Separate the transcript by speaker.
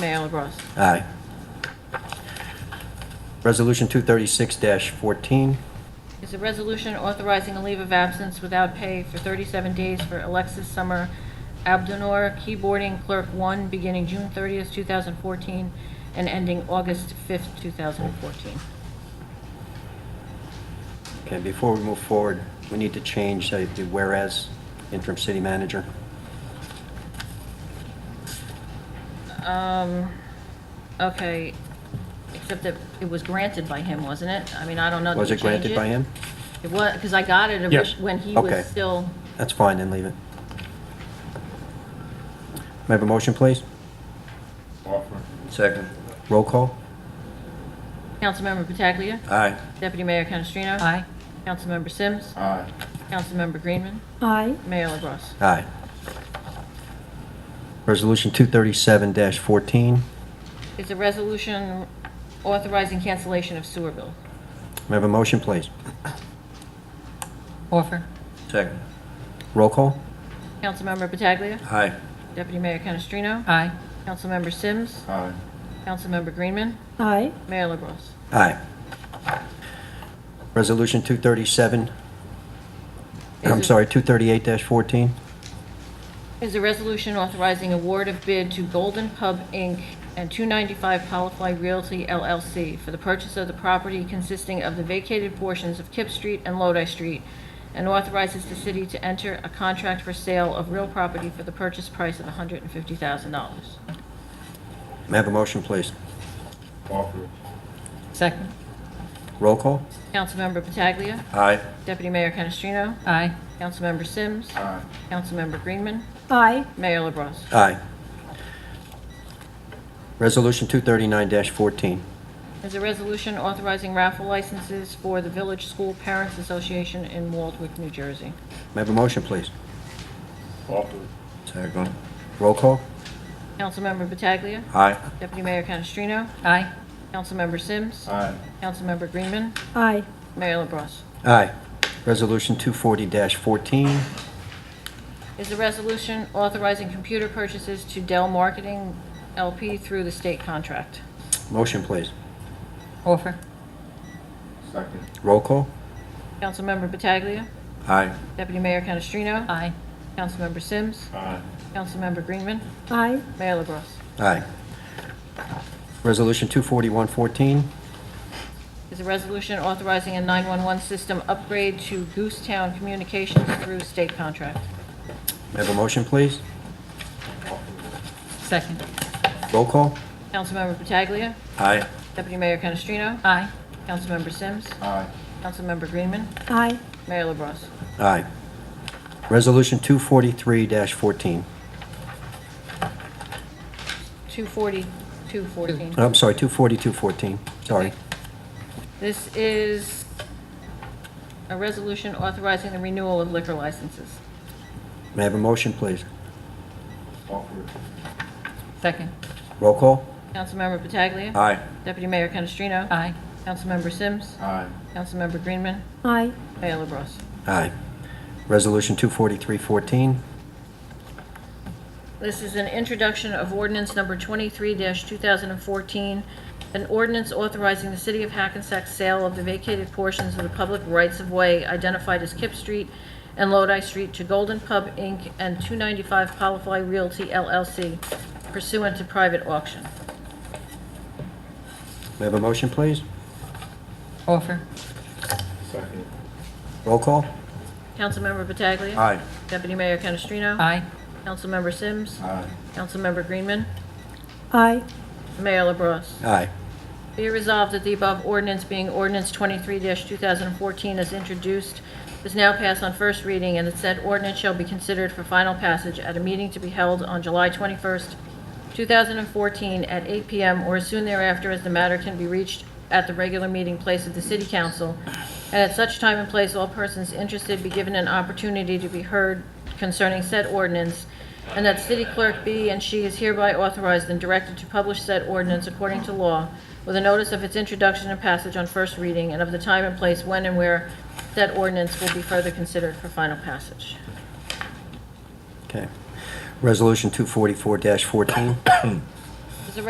Speaker 1: Mayor LaBrus.
Speaker 2: Aye. Resolution 236-14.
Speaker 1: Is a resolution authorizing a leave of absence without pay for 37 days for Alexis Summer Abdunor, keyboarding clerk one, beginning June 30th, 2014, and ending August 5th, 2014.
Speaker 2: Okay, before we move forward, we need to change uh, the whereas interim city manager.
Speaker 1: Um, okay, except that it was granted by him, wasn't it? I mean, I don't know. Did
Speaker 2: Was
Speaker 1: we
Speaker 2: it granted
Speaker 1: change
Speaker 2: by him?
Speaker 1: It was, because I got it
Speaker 3: Yes.
Speaker 1: when he
Speaker 2: Okay.
Speaker 1: was still,
Speaker 2: That's fine, then leave it. May I have a motion, please?
Speaker 3: Offer.
Speaker 2: Second. Roll call?
Speaker 1: Councilmember Pataglia.
Speaker 2: Aye.
Speaker 1: Deputy Mayor Canestrino. Aye. Councilmember Sims.
Speaker 3: Aye.
Speaker 1: Councilmember Greenman.
Speaker 4: Aye.
Speaker 1: Mayor LaBrus.
Speaker 2: Aye. Resolution 237-14.
Speaker 1: Is a resolution authorizing cancellation of sewer bill.
Speaker 2: May I have a motion, please?
Speaker 1: Offer.
Speaker 2: Second. Roll call?
Speaker 1: Councilmember Pataglia.
Speaker 2: Aye.
Speaker 1: Deputy Mayor Canestrino.
Speaker 5: Aye.
Speaker 1: Councilmember Sims.
Speaker 3: Aye.
Speaker 1: Councilmember Greenman.
Speaker 4: Aye.
Speaker 1: Mayor LaBrus.
Speaker 2: Aye. Resolution 237, I'm
Speaker 1: Is it-
Speaker 2: sorry, 238-14.
Speaker 1: Is a resolution authorizing award of bid to Golden Pub, Inc. and 295 Polyfly Realty LLC for the purchase of the property consisting of the vacated portions of Kip Street and Lodi Street, and authorizes the city to enter a contract for sale of real property for the purchase price of $150,000.
Speaker 2: May I have a motion, please?
Speaker 3: Offer.
Speaker 5: Second.
Speaker 2: Roll call?
Speaker 1: Councilmember Pataglia.
Speaker 2: Aye.
Speaker 1: Deputy Mayor Canestrino.
Speaker 5: Aye.
Speaker 1: Councilmember Sims.
Speaker 3: Aye.
Speaker 1: Councilmember Greenman.
Speaker 4: Aye.
Speaker 1: Mayor LaBrus.
Speaker 2: Aye. Resolution 239-14.
Speaker 1: Is a resolution authorizing raffle licenses for the Village School Parents Association in Waldwick, New Jersey.
Speaker 2: May I have a motion, please?
Speaker 3: Offer.
Speaker 2: Second. Roll call?
Speaker 1: Councilmember Pataglia.
Speaker 2: Aye.
Speaker 1: Deputy Mayor Canestrino.
Speaker 5: Aye.
Speaker 1: Councilmember Sims.
Speaker 3: Aye.
Speaker 1: Councilmember Greenman.
Speaker 4: Aye.
Speaker 1: Mayor LaBrus.
Speaker 2: Aye. Resolution 240-14.
Speaker 1: Is a resolution authorizing computer purchases to Dell Marketing LP through the state contract.
Speaker 2: Motion, please?
Speaker 5: Offer.
Speaker 3: Second.
Speaker 2: Roll call?
Speaker 1: Councilmember Pataglia.
Speaker 2: Aye.
Speaker 1: Deputy Mayor Canestrino.
Speaker 5: Aye.
Speaker 1: Councilmember Sims.
Speaker 3: Aye.
Speaker 1: Councilmember Greenman.
Speaker 4: Aye.
Speaker 1: Mayor LaBrus.
Speaker 2: Aye. Resolution 241-14.
Speaker 1: is a resolution authorizing a 911 system upgrade to Goosetown Communications through state contract.
Speaker 2: May I have a motion, please?
Speaker 5: Second.
Speaker 2: Roll call?
Speaker 1: Councilmember Pataglia.
Speaker 2: Aye.
Speaker 1: Deputy Mayor Canestrino.
Speaker 5: Aye.
Speaker 1: Councilmember Sims.
Speaker 3: Aye.
Speaker 1: Councilmember Greenman.
Speaker 4: Aye.
Speaker 1: Mayor LaBrus.
Speaker 2: Aye. Resolution 243-14.
Speaker 1: 24214.
Speaker 2: Oh, I'm sorry, 242-14, Uh, sorry.
Speaker 1: This is a resolution authorizing the renewal of liquor licenses.
Speaker 2: May I have a motion, please?
Speaker 3: Offer.
Speaker 5: Second.
Speaker 2: Roll call?
Speaker 1: Councilmember Pataglia.
Speaker 2: Aye.
Speaker 1: Deputy Mayor Canestrino.
Speaker 5: Aye.
Speaker 1: Councilmember Sims.
Speaker 3: Aye.
Speaker 1: Councilmember Greenman.
Speaker 4: Aye.
Speaker 1: Mayor LaBrus.
Speaker 2: Aye. Resolution 243-14.
Speaker 1: This is an introduction of ordinance number 23-2014, an ordinance authorizing the city of Hackensack sale of the vacated portions of the public rights-of-way identified as Kip Street and Lodi Street to Golden Pub, Inc. and 295 Polyfly Realty LLC pursuant to private auction.
Speaker 2: May I have a motion, please?
Speaker 5: Offer.
Speaker 3: Second.
Speaker 2: Roll call?
Speaker 1: Councilmember Pataglia.
Speaker 2: Aye.
Speaker 1: Deputy Mayor Canestrino.
Speaker 5: Aye.
Speaker 1: Councilmember Sims.
Speaker 3: Aye.
Speaker 1: Councilmember Greenman.
Speaker 4: Aye.
Speaker 1: Mayor LaBrus.
Speaker 2: Aye.
Speaker 1: Be it resolved that the above ordinance being ordinance 23-2014 as introduced is now passed on first reading and that said ordinance shall be considered for final passage at a meeting to be held on July 21st, 2014 at 8 PM or as soon thereafter as the matter can be reached at the regular meeting place of the city council. And at such time and place, all persons interested be given an opportunity to be heard concerning said ordinance and that city clerk be and she is hereby authorized and directed to publish said ordinance according to law with a notice of its introduction and passage on first reading and of the time and place when and where said ordinance will be further considered for final passage.
Speaker 2: Okay. Resolution 244-14. May